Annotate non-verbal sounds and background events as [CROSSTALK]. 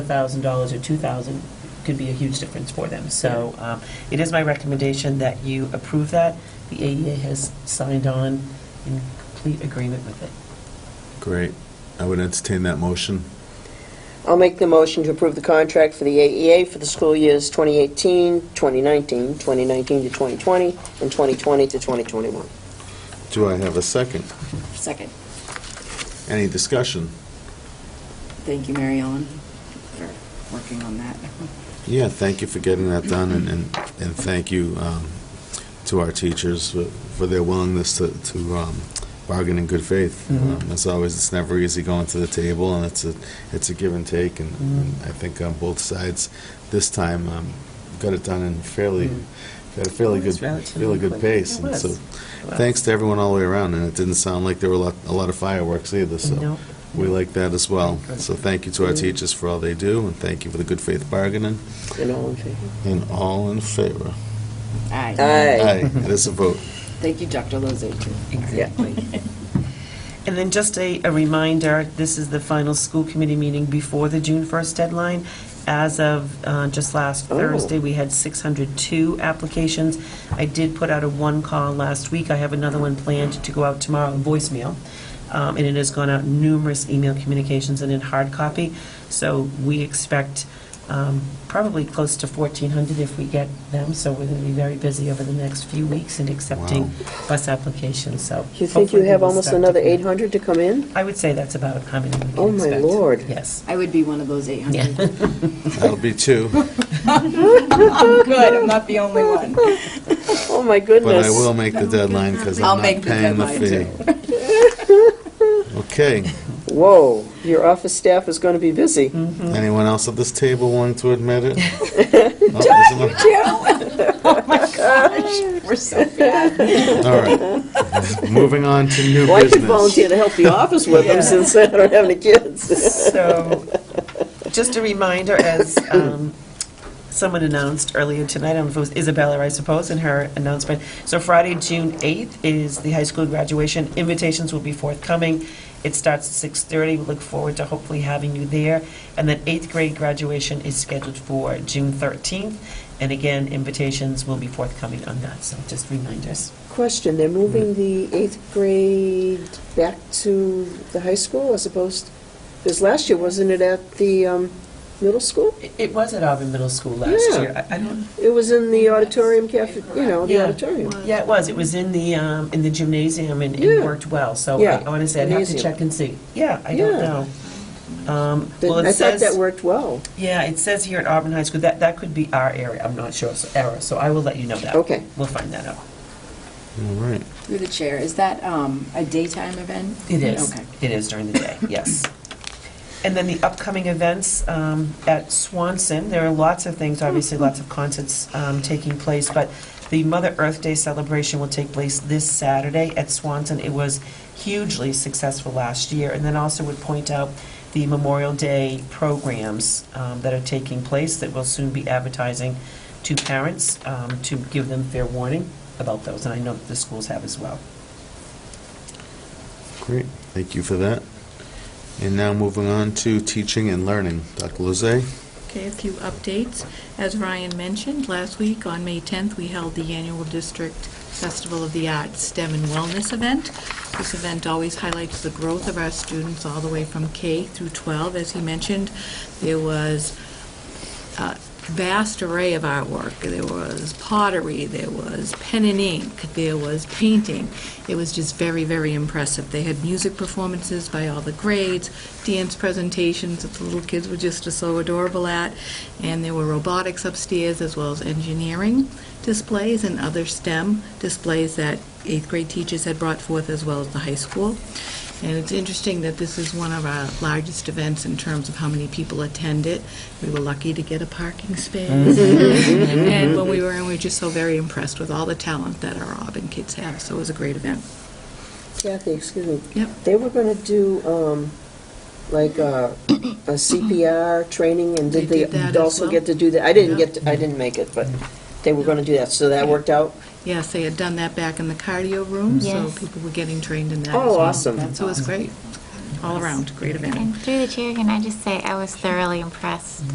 thousand dollars or two thousand could be a huge difference for them. So um, it is my recommendation that you approve that. The AEA has signed on in complete agreement with it. Great. I would entertain that motion. I'll make the motion to approve the contract for the AEA for the school years 2018, 2019, 2019 to 2020, and 2020 to 2021. Do I have a second? Second. Any discussion? Thank you, Mary Ellen, for working on that. Yeah, thank you for getting that done, and, and and thank you um, to our teachers for- for their willingness to, to um, bargain in good faith. Mhm. Um, As always, it's never easy going to the table, and it's a, it's a give and take, and and I think on both sides, this time, um, got it done in fairly, at a fairly It was good, relatively fairly good quick. pace. It And so, was. Well, thanks to everyone all the way around, and it didn't sound like there were a lot, a lot of fireworks either, so No. we like that as well. Good. So thank you to our Mm. teachers for all they do, and thank you for the good faith bargaining, And all in favor? and all in favor. Aye. Aye. Aye, it is a vote. Thank you, Dr. Lozay, too. Exactly. And then just a, a reminder, this is the final school committee meeting before the June 1st deadline. As of uh, just last Oh. Thursday, we had 602 applications. I did put out a one call last week. I have another one planned to go out tomorrow, a voicemail. Um, And it has gone out numerous email communications and in hard copy. So we expect um, probably close to 1,400 if we get them. So we're going to be very busy over the next few weeks in accepting bus applications, so. You think you hopefully have we'll almost start to another connect. 800 to come in? I would say that's about how many we can Oh, my expect. Lord. Yes. I would be one of those [LAUGHS] 800. That'll be two. I'm good, I'm not the only one. Oh, my But I goodness. will make the deadline because I'll I'm not make the paying the fee. deadline, [LAUGHS] Okay, Whoa, your office staff is going to be busy. Mm-hmm. anyone else at this table willing to admit [LAUGHS] it? Oh, there's another- We're so bad. All right. Moving on to new Well, I could business. volunteer to help the office with [LAUGHS] them Yeah. since I don't have any kids. So, just a reminder, as um, someone announced earlier tonight, I don't know if it was Isabella, I suppose, in her announcement. So Friday, June 8th is the high school graduation. Invitations will be forthcoming. It starts at 6:30. We look forward to hopefully having you there. And then eighth grade graduation is scheduled for June 13th. And again, invitations will be forthcoming on that, so just reminders. Question, they're moving the eighth grade back to the high school as opposed, because last year, wasn't it at the um, middle school? It- It was at Auburn Middle School last Yeah. year. I- I don't It was in the auditorium cafe, you know, the Yeah. auditorium. Yeah, it was. It was in the, um, in the gymnasium and it Yeah. worked well. So Yeah, I- honestly, I'd have to gymnasium. check and see. Yeah, I don't Yeah. know. Um, Well, I it thought that says, worked well. yeah, it says here at Auburn High School, that, that could be our area. I'm not sure, so error, so I will let you know that. Okay. We'll find that out. All right. Through the chair, is that um, a daytime event? It is. Okay. It is during the day, yes. And then the upcoming events um, at Swanson, there are lots of things, obviously, lots of concerts um, taking place, but the Mother Earth Day celebration will take place this Saturday at Swanson. It was hugely successful last year, and then also would point out the Memorial Day programs um, that are taking place that will soon be advertising to parents um, to give them fair warning about those, and I know that the schools have as well. Great, thank you for that. And now moving on to teaching and learning. Dr. Lozay? Okay, a few updates. As Ryan mentioned, last week on May 10th, we held the annual District Festival of the Arts STEM and Wellness event. This event always highlights the growth of our students all the way from K through 12. As he mentioned, there was a vast array of artwork. There was pottery, there was pen and ink, there was painting. It was just very, very impressive. They had music performances by all the grades, dance presentations that the little kids were just so adorable at, and there were robotics upstairs as well as engineering displays and other STEM displays that eighth grade teachers had brought forth as well as the high school. And it's interesting that this is one of our largest events in terms of how many people attend it. We were lucky to get a parking space. And when we were in, we were just so very impressed with all the talent that our Auburn kids have, so it was a great event. Kathy, excuse me. Yep. They were going to do, um, like, uh, a CPR training, and did They they did that as also well. get to do that? I didn't Yeah. get, to- I didn't make it, but they were going to do that, so that worked out? Yes, they had done that back in the cardio room, so Yes. people were getting trained in that as Oh, well. awesome. So it was great. all around, great event. And through the chair, can I just say, I was thoroughly impressed